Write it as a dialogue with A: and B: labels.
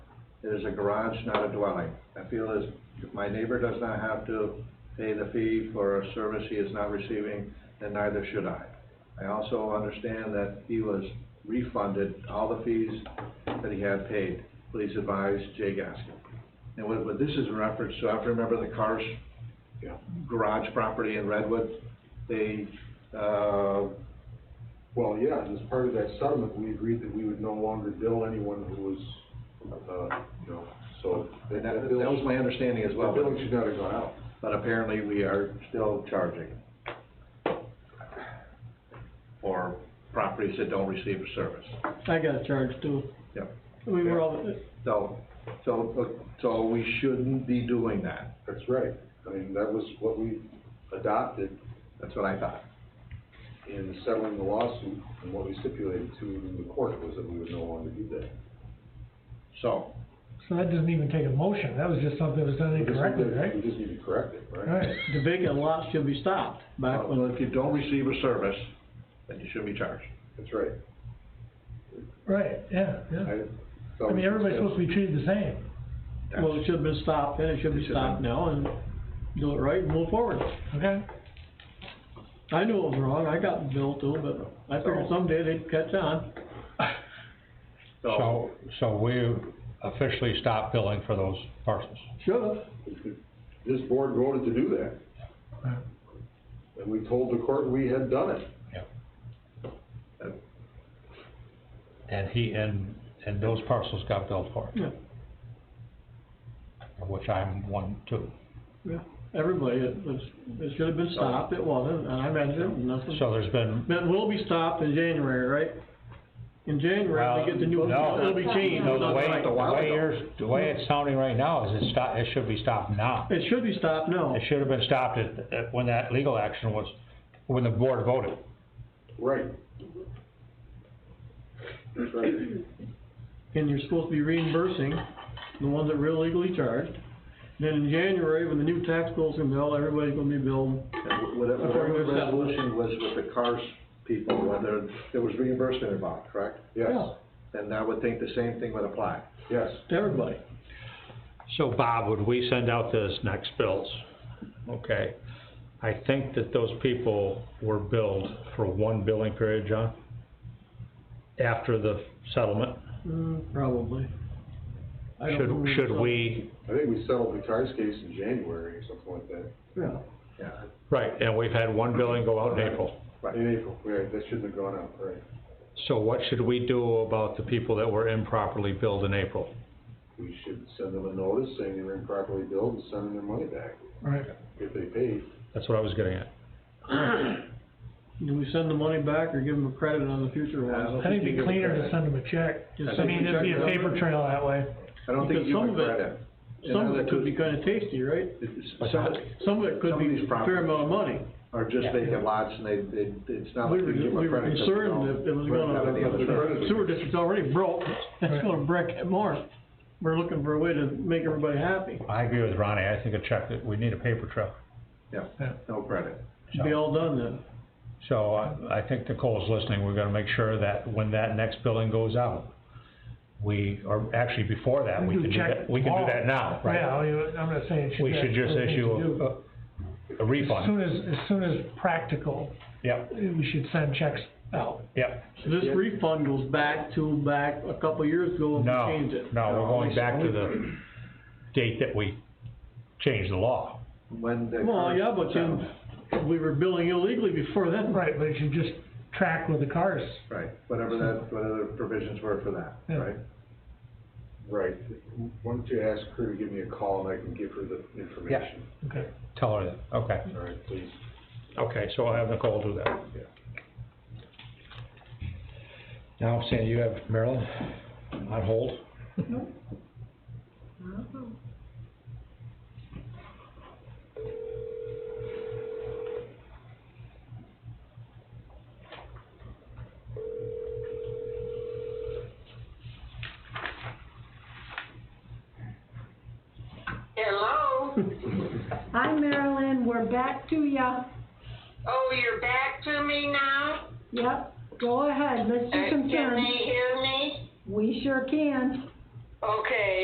A: It is a garage, not a dwelling. I feel as if my neighbor does not have to pay the fee for a service he is not receiving, then neither should I. I also understand that he was refunded all the fees that he had paid. Please advise Jay Gaskin. And what, what this is in reference to, I remember the Cars garage property in Redwood. They, uh,
B: Well, yeah, and as part of that settlement, we agreed that we would no longer bill anyone who was, uh, you know, so.
A: that, that was my understanding as well.
B: That billing should not have gone out.
A: But apparently we are still charging for properties that don't receive a service.
C: I got charged too.
A: Yep.
C: We were all,
A: So, so, so we shouldn't be doing that.
B: That's right. I mean, that was what we adopted
A: That's what I thought.
B: in settling the lawsuit and what we stipulated to in the court was that we would no longer do that.
A: So,
D: So that doesn't even take a motion, that was just something that was done
B: We just need
D: incorrectly,
B: to-
D: right?
B: We just need to correct it, right?
D: Right,
C: the vacant lot should be stopped back when,
A: well, if you don't receive a service, then you shouldn't be charged.
B: That's right.
D: right, yeah, yeah.
B: I
D: I mean, everybody's supposed to be treated the same.
A: That's-
C: well, it should have been stopped then, it should
A: It
C: be
A: should have
C: stopped now and do it right and move forward.
D: Okay.
C: I knew it was wrong, I got billed too, but I figured
A: So-
C: someday they'd catch on.
A: So,
E: So, so we officially stopped billing for those parcels.
C: Should have.
B: This board voted to do that.
D: Right.
B: And we told the court we had done it.
E: And he, and, and those parcels got billed for.
C: Yeah.
E: Of Which I'm one too.
C: Yeah, everybody, it was, it should have been stopped, it wasn't, and I mentioned, it, and that's what,
E: So there's been,
C: it will be stopped in January, right? In January,
E: well,
C: we get the new,
E: no.
C: it'll be changed.
E: No, the
C: not
E: way,
C: right.
E: the
A: while
E: way
A: ago.
E: yours, the way it's sounding right now is it stop, it should be stopped now.
C: It should be stopped now.
E: It should have been stopped at, at, when that legal action was, when the board voted.
B: Right. That's right.
C: and you're supposed to be reimbursing the ones that were illegally charged. Then in January, when the new tax bill's in bill, everybody's gonna be billed.
A: whatever,
C: According
A: whatever
C: to the settlement.
A: resolution was with the Cars people, whether there was reimbursement involved, correct?
B: Yes,
A: Then I would think the same thing would apply.
B: yes.
C: To everybody.
E: So Bob, would we send out those next bills? Okay, I think that those people were billed for one billing period, John? After the settlement,
C: Mm, probably. I don't
E: should,
C: remember
E: should
C: some-
E: we,
B: I think we settled the Cars case in January or something like that,
C: Yeah,
A: Yeah,
E: right, and we've had one billing go out in April.
B: in April, right, that shouldn't have gone out, right?
E: So what should we do about the people that were improperly billed in April?
B: We should send them a notice saying they were improperly billed and send them their money back
D: Right,
B: if they paid.
E: That's what I was getting at.
C: do we send the money back or give them a credit on the future
A: I
C: ones?
A: don't
D: I think
A: you give
D: it'd be
A: a
D: cleaner
A: credit.
D: to send them a check.
C: Just
D: I
C: send
D: mean,
C: them a
D: it'd be
C: check.
D: a paper trail that way.
A: I don't think
C: Because
A: you
C: some
A: would
C: of it-
A: credit. In
C: Some of
A: other
C: it could be
A: words,
C: kinda tasty, right?
A: it's- Some of it
C: Some of it could
A: Some of
C: be
A: these
C: a fair
A: properties-
C: amount of money.
A: are just vacant lots and they, they, it's not like
C: We were,
A: you give
C: we
A: them
C: were
A: credit. 'cause they
C: concerned
A: don't
C: that it was
A: really have any other service.
C: gonna, sewer district's already broke, it's
D: Right.
C: gonna break it more. We're looking for a way to make everybody happy.
E: I agree with Ronnie, I think a check, that we need a paper trail.
A: Yeah, no credit.
C: Should be all done then.
E: So I, I think Nicole's listening, we're gonna make sure that when that next billing goes out, we, or actually before that, we
D: We do
E: can do
D: check
E: that, we can do that now, right?
D: Yeah, you- I'm not saying it should.
E: We
D: be
E: should just
D: the thing to
E: issue
D: do.
E: a, a
D: As
E: refund.
D: soon as, as soon as practical,
E: Yep,
D: we should send checks out.
E: yep.
C: So this
B: Yeah.
C: refund goes back to back a couple years ago when we
E: No,
C: changed it.
E: no, we're
A: No,
E: going back to
A: we-
E: the date that we changed the law.
A: When the.
C: Well,
A: cars-
C: yeah, but then, we were billing illegally before then.
D: Right, but it should just track with the cars.
A: Right, whatever that, whatever the provisions were for that,
D: Yeah.
A: right?
B: Right, why don't you ask her to give me a call and I can give her the information?
D: Okay.
E: Tell her that, okay.
B: All right, please.
E: Okay, so I'll have Nicole do that. Now, Sandy, you have Marilyn on hold?
F: Hello.
G: Hi Marilyn, we're back to ya.
F: Oh, you're back to me now?
G: Yep, go ahead, let's
F: Uh,
G: do some
F: Can
G: chants.
F: they hear me?
G: We sure can.
F: Okay,